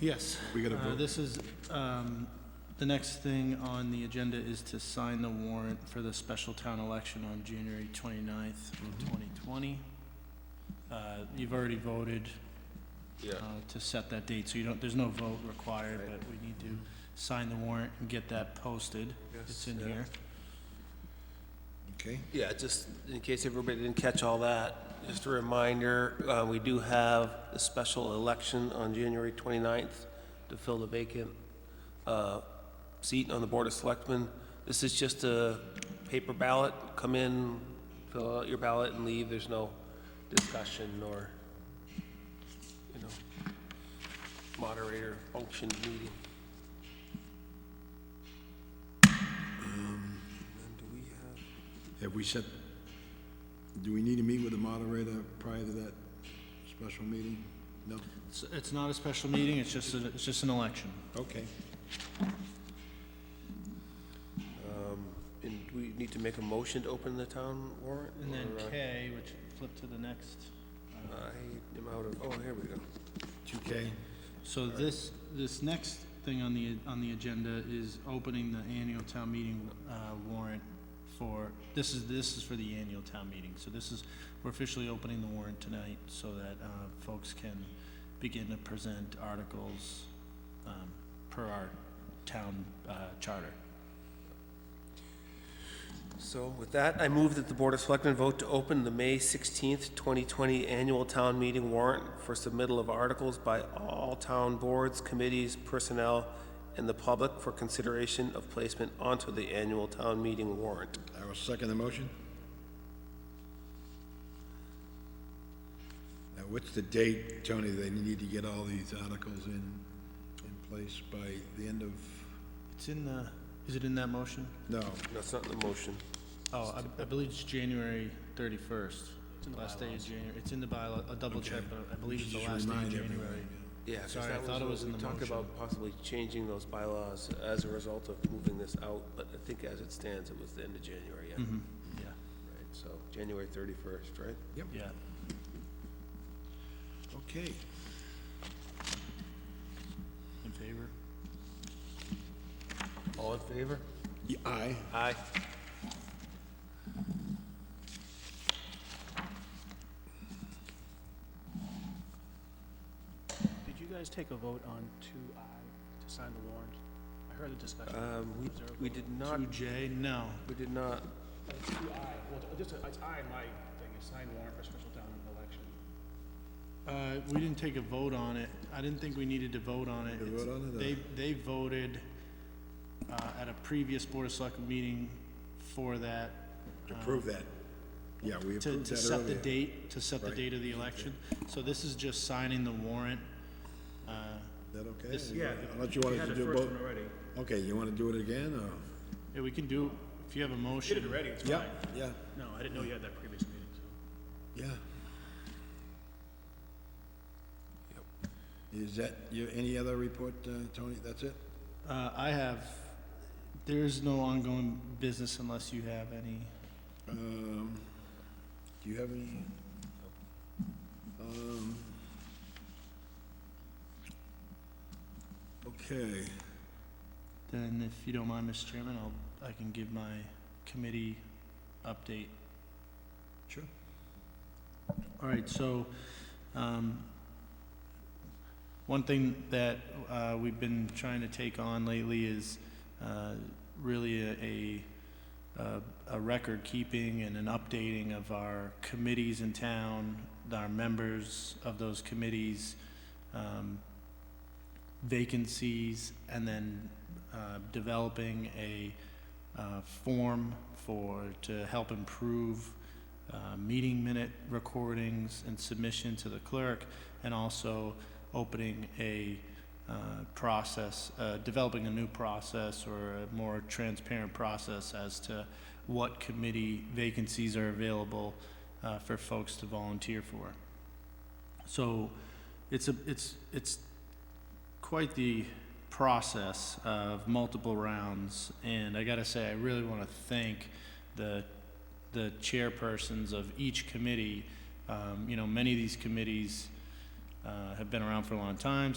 Yes. We gotta Uh, vote. This is, um, the next thing on the agenda is to sign the warrant for the special town election on January 29th, Mhm. 2020. Uh, You've already voted Yeah. uh, to set that date, so you don't, there's no vote required, but we need to sign the warrant and get that posted. It's in here. Okay, Yeah, just in case everybody didn't catch all that, just a reminder, uh, we do have a special election on January 29th to fill the vacant uh, seat on the Board of Selectmen. This is just a paper ballot. Come in, fill out your ballot and leave. There's no discussion or, you know, moderator function meeting. And do we have? have we set, do we need to meet with the moderator prior to that special meeting? No? It's- It's not a special meeting, it's just, a- it's just an election. Okay. Um, And do we need to make a motion to open the town warrant? And then or, uh, K, which flip to the next. I am out of, oh, here we go. Two K? So this, this next thing on the, on the agenda is opening the annual town meeting uh, warrant for, this is, this is for the annual town meeting. So this is, we're officially opening the warrant tonight so that uh, folks can begin to present articles um, per our town uh, charter. So with that, I move that the Board of Selectmen vote to open the May 16th, 2020 annual town meeting warrant for submittal of articles by all town boards, committees, personnel, and the public for consideration of placement onto the annual town meeting warrant. I will second the motion. Now, what's the date, Tony, they need to get all these articles in, in place by the end of, It's in the, is it in that motion? no, That's not in the motion. Oh, I- I believe it's January 31st. Last day of January. It's in the bylaw, I'll double check, but I believe it's the Just last day of remind everyone, January. Yeah, 'cause Sorry, I that was thought it what was in we the talked motion. about possibly changing those bylaws as a result of moving this out, but I think as it stands, it was the end of January, yeah. Mm-hmm. Right, Yeah. so January thirty-first, right? Yeah. Okay, In favor? All in favor? Yeah, aye. Aye. Did you guys take a vote on two I to sign the warrant? I heard the discussion. Uh, Um, we, Was there a we vote? did not, Two J, no. we did not, Uh, Two I, well, just, it's I in my thing, is sign warrant for special town election. Uh, we didn't take a vote on it. I didn't think we needed to vote on it. You vote on it, uh. or- They, they voted, uh, at a previous Board of Selectmen meeting for that, To prove that, yeah, we approved that Uh, to, earlier. to set the date, to set the Right. date of the election. So this is just signing the warrant. Uh, Is that okay? This- yeah, Unless you wanted to do both. already. Okay, you wanna do it again, or? yeah, we can do, if you have a You did it motion. already, it's Yeah, fine. yeah, No, I didn't know you had that previous meeting, so. yeah. Is that, you, any other report, uh, Tony? That's it? Uh, I have, there is no ongoing business unless you have any. Um, do you have any? Um, okay, Then if you don't mind, Mr. Chairman, I'll, I can give my committee update. Sure. All right, so, um, one thing that, uh, we've been trying to take on lately is, uh, really a, a, uh, a record keeping and an updating of our committees in town, our members of those committees, um, vacancies, and then, uh, developing a, uh, form for, to help improve, uh, meeting minute recordings and submission to the clerk, and also opening a uh, process, uh, developing a new process or a more transparent process as to what committee vacancies are available uh, for folks to volunteer for. So it's a, it's, it's quite the process of multiple rounds, and I gotta say, I really wanna thank the the chairpersons of each committee. Um, You know, many of these committees uh, have been around for a long time,